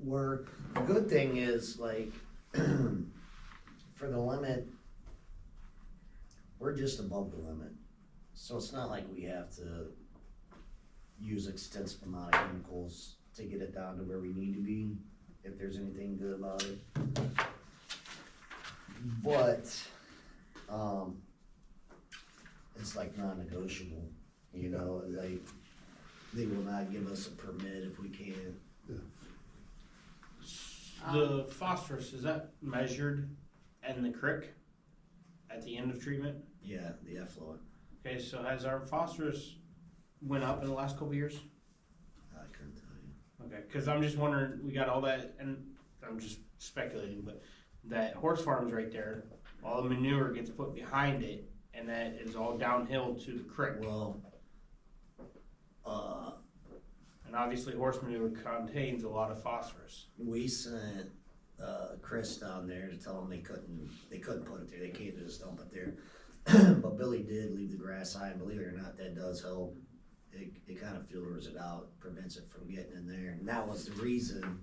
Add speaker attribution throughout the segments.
Speaker 1: we're, the good thing is like, for the limit, we're just above the limit. So it's not like we have to use extensive amount of chemicals to get it down to where we need to be, if there's anything good about it. But, um, it's like non-negotiable, you know, like, they will not give us a permit if we can't
Speaker 2: The phosphorus, is that measured in the creek at the end of treatment?
Speaker 1: Yeah, the effluent,
Speaker 2: Okay, so has our phosphorus went up in the last couple years?
Speaker 1: I couldn't tell you.
Speaker 2: Okay, because I'm just wondering, we got all that, and I'm just speculating, but that horse farm's right there, all the manure gets put behind it, and that is all downhill to the creek.
Speaker 1: Well, uh,
Speaker 2: And obviously, horse manure contains a lot of phosphorus.
Speaker 1: we sent, uh, Chris down there to tell them they couldn't, they couldn't put it there, they can't just dump it there. But Billy did leave the grass high, and believe it or not, that does help. It, it kind of filters it out, prevents it from getting in there, and that was the reason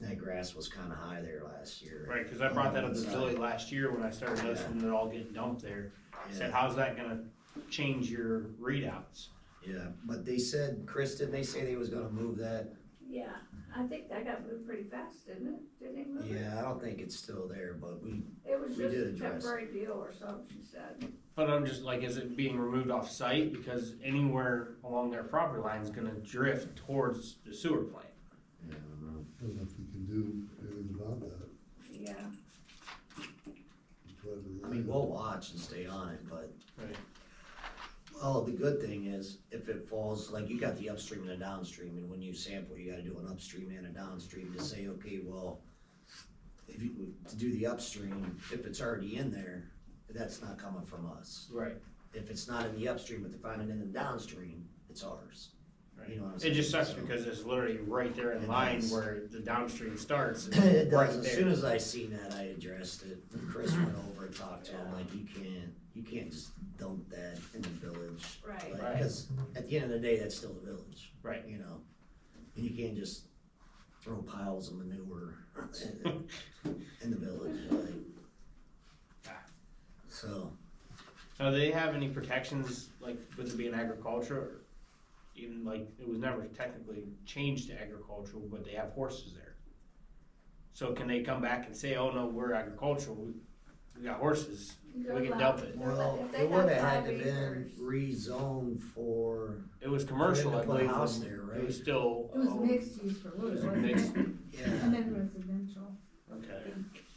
Speaker 1: that grass was kind of high there last year.
Speaker 2: Right, because I brought that up to Billy last year when I started noticing it all getting dumped there. I said,
Speaker 1: Yeah,
Speaker 2: how's that gonna change your readouts?
Speaker 1: Yeah, but they said, Chris, didn't they say they was gonna move that?
Speaker 3: Yeah, I think that got moved pretty fast, didn't it? Didn't it move it?
Speaker 1: Yeah, I don't think it's still there, but we,
Speaker 3: It was
Speaker 1: we
Speaker 3: just
Speaker 1: did
Speaker 3: a
Speaker 1: address it.
Speaker 3: temporary deal or something, she said.
Speaker 2: But I'm just like, is it being removed off site? Because anywhere along their property line is gonna drift towards the sewer plant.
Speaker 1: yeah, I don't know.
Speaker 4: don't know if we can do anything about that.
Speaker 3: Yeah,
Speaker 4: Try to-
Speaker 1: I mean, we'll watch and stay on it, but.
Speaker 2: Right.
Speaker 1: Well, the good thing is, if it falls, like you got the upstream and the downstream, and when you sample, you gotta do an upstream and a downstream to say, okay, well. If you, to do the upstream, if it's already in there, that's not coming from us.
Speaker 2: Right.
Speaker 1: If it's not in the upstream, but they find it in the downstream, it's ours. You know what I'm
Speaker 2: It
Speaker 1: saying?
Speaker 2: just sucks
Speaker 1: So-
Speaker 2: because it's literally right there in
Speaker 1: It
Speaker 2: line
Speaker 1: does.
Speaker 2: where the downstream starts. It's
Speaker 1: It
Speaker 2: right
Speaker 1: does, as
Speaker 2: there.
Speaker 1: soon as I seen that, I addressed it, Chris went over and talked to him, like, you can't, you can't just dump that in the village.
Speaker 3: right.
Speaker 2: Right.
Speaker 1: Because at the end of the day, that's still the village.
Speaker 2: Right.
Speaker 1: You know, and you can't just throw piles of manure in, in the village, like.
Speaker 2: Ah.
Speaker 1: So,
Speaker 2: Now, do they have any protections, like with it being agriculture? or Even like, it was never technically changed to agricultural, but they have horses there. So can they come back and say, oh no, we're agricultural, we, we got horses,
Speaker 3: They're
Speaker 2: we can
Speaker 3: allowed-
Speaker 2: dump it.
Speaker 3: they're allowed-
Speaker 1: well,
Speaker 3: if they
Speaker 1: it would've
Speaker 3: have
Speaker 1: had to
Speaker 3: five
Speaker 1: been
Speaker 3: acres-
Speaker 1: rezoned for,
Speaker 2: It was commercial,
Speaker 1: They
Speaker 2: I
Speaker 1: had to put a
Speaker 2: believe.
Speaker 1: house
Speaker 2: when-
Speaker 1: there,
Speaker 2: It
Speaker 1: right?
Speaker 2: was still.
Speaker 5: It was
Speaker 2: oh,
Speaker 5: mixed use for
Speaker 2: it
Speaker 5: wood,
Speaker 2: was
Speaker 5: wasn't it?
Speaker 2: mixed,
Speaker 1: yeah,
Speaker 5: And then residential.
Speaker 2: okay.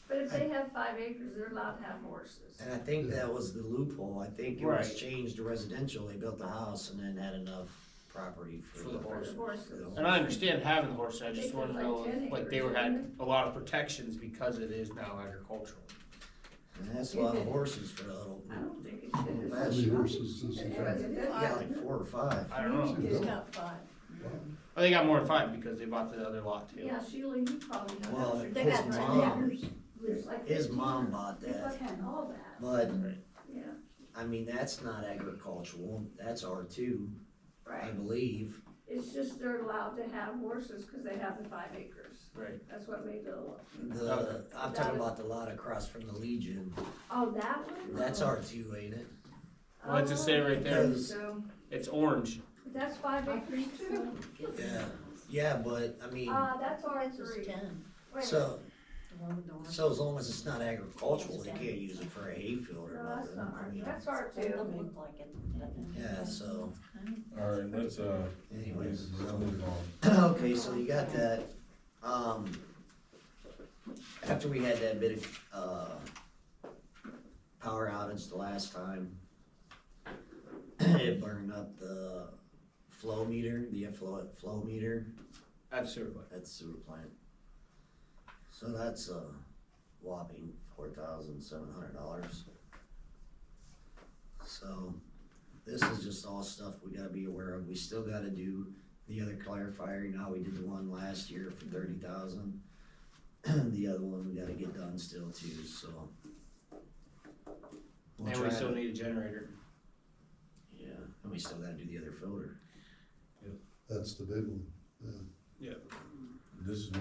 Speaker 3: But if they have five acres, they're allowed to have horses.
Speaker 1: and I think that was the loophole, I think it was
Speaker 2: Right.
Speaker 1: changed to residential, they built the house and then had enough property for.
Speaker 2: For the
Speaker 3: For
Speaker 2: horses.
Speaker 3: the horses.
Speaker 1: For the
Speaker 2: And I understand having horses, I
Speaker 3: I
Speaker 2: just
Speaker 3: think
Speaker 2: wanna
Speaker 3: it was
Speaker 2: know,
Speaker 3: like 10
Speaker 2: like they were
Speaker 3: acres,
Speaker 2: had
Speaker 3: wasn't
Speaker 2: a lot of protections because it is now agricultural.
Speaker 1: And that's a lot of horses for a little,
Speaker 3: I don't think it should.
Speaker 4: How many horses does he
Speaker 3: It
Speaker 4: have?
Speaker 3: wasn't
Speaker 1: yeah, like
Speaker 3: five.
Speaker 1: four or five.
Speaker 2: I don't know,
Speaker 4: It's
Speaker 5: not five.
Speaker 2: Oh, they got more than five because they bought the other lot too.
Speaker 3: Yeah, Sheila, you probably know.
Speaker 1: Well,
Speaker 3: that.
Speaker 1: his
Speaker 5: They got ten
Speaker 1: mom,
Speaker 5: acres.
Speaker 3: It's like
Speaker 1: his
Speaker 3: 15.
Speaker 1: mom bought
Speaker 3: They
Speaker 1: that,
Speaker 3: bought all that,
Speaker 1: but
Speaker 3: yeah,
Speaker 1: I mean, that's not agricultural, that's R two, I
Speaker 3: right.
Speaker 1: believe.
Speaker 3: It's just they're allowed to have horses because they have the five acres.
Speaker 2: Right.
Speaker 3: That's what made the,
Speaker 1: The, I'm talking about the lot across from the Legion,
Speaker 3: oh, that one?
Speaker 1: that's R two, ain't it?
Speaker 2: What's it say right
Speaker 1: there?
Speaker 3: So,
Speaker 2: It's orange.
Speaker 3: that's five acres too.
Speaker 1: Yeah, yeah, but, I mean,
Speaker 3: Uh, that's R
Speaker 5: Ours is
Speaker 3: three.
Speaker 5: ten,
Speaker 3: Wait,
Speaker 1: so,
Speaker 5: the one with the orange.
Speaker 1: so as long as it's not agricultural, they can't use it for a hayfield or
Speaker 3: No, that's
Speaker 1: nothing,
Speaker 3: not
Speaker 1: I
Speaker 3: R,
Speaker 1: mean,
Speaker 3: that's R
Speaker 5: It
Speaker 3: two.
Speaker 5: doesn't look like it.
Speaker 1: yeah, so
Speaker 6: All right, let's, uh,
Speaker 1: anyways.
Speaker 6: let's
Speaker 1: so-
Speaker 6: move on.
Speaker 1: Okay, so you got that, um, after we had that bit of, uh, power outage the last time, it burned up the flow meter, the effluent flow meter
Speaker 2: Absolutely.
Speaker 1: at the sewer plant. So that's a whopping four thousand seven hundred dollars. So this is just all stuff we gotta be aware of. We still gotta do the other clarifier. Now we did the one last year for thirty thousand. The other one we gotta get done still too, so. We'll
Speaker 2: And we
Speaker 1: try
Speaker 2: still
Speaker 1: to-
Speaker 2: need a generator.
Speaker 1: Yeah, and we still gotta do the other filter.
Speaker 4: That's the big one.
Speaker 6: This is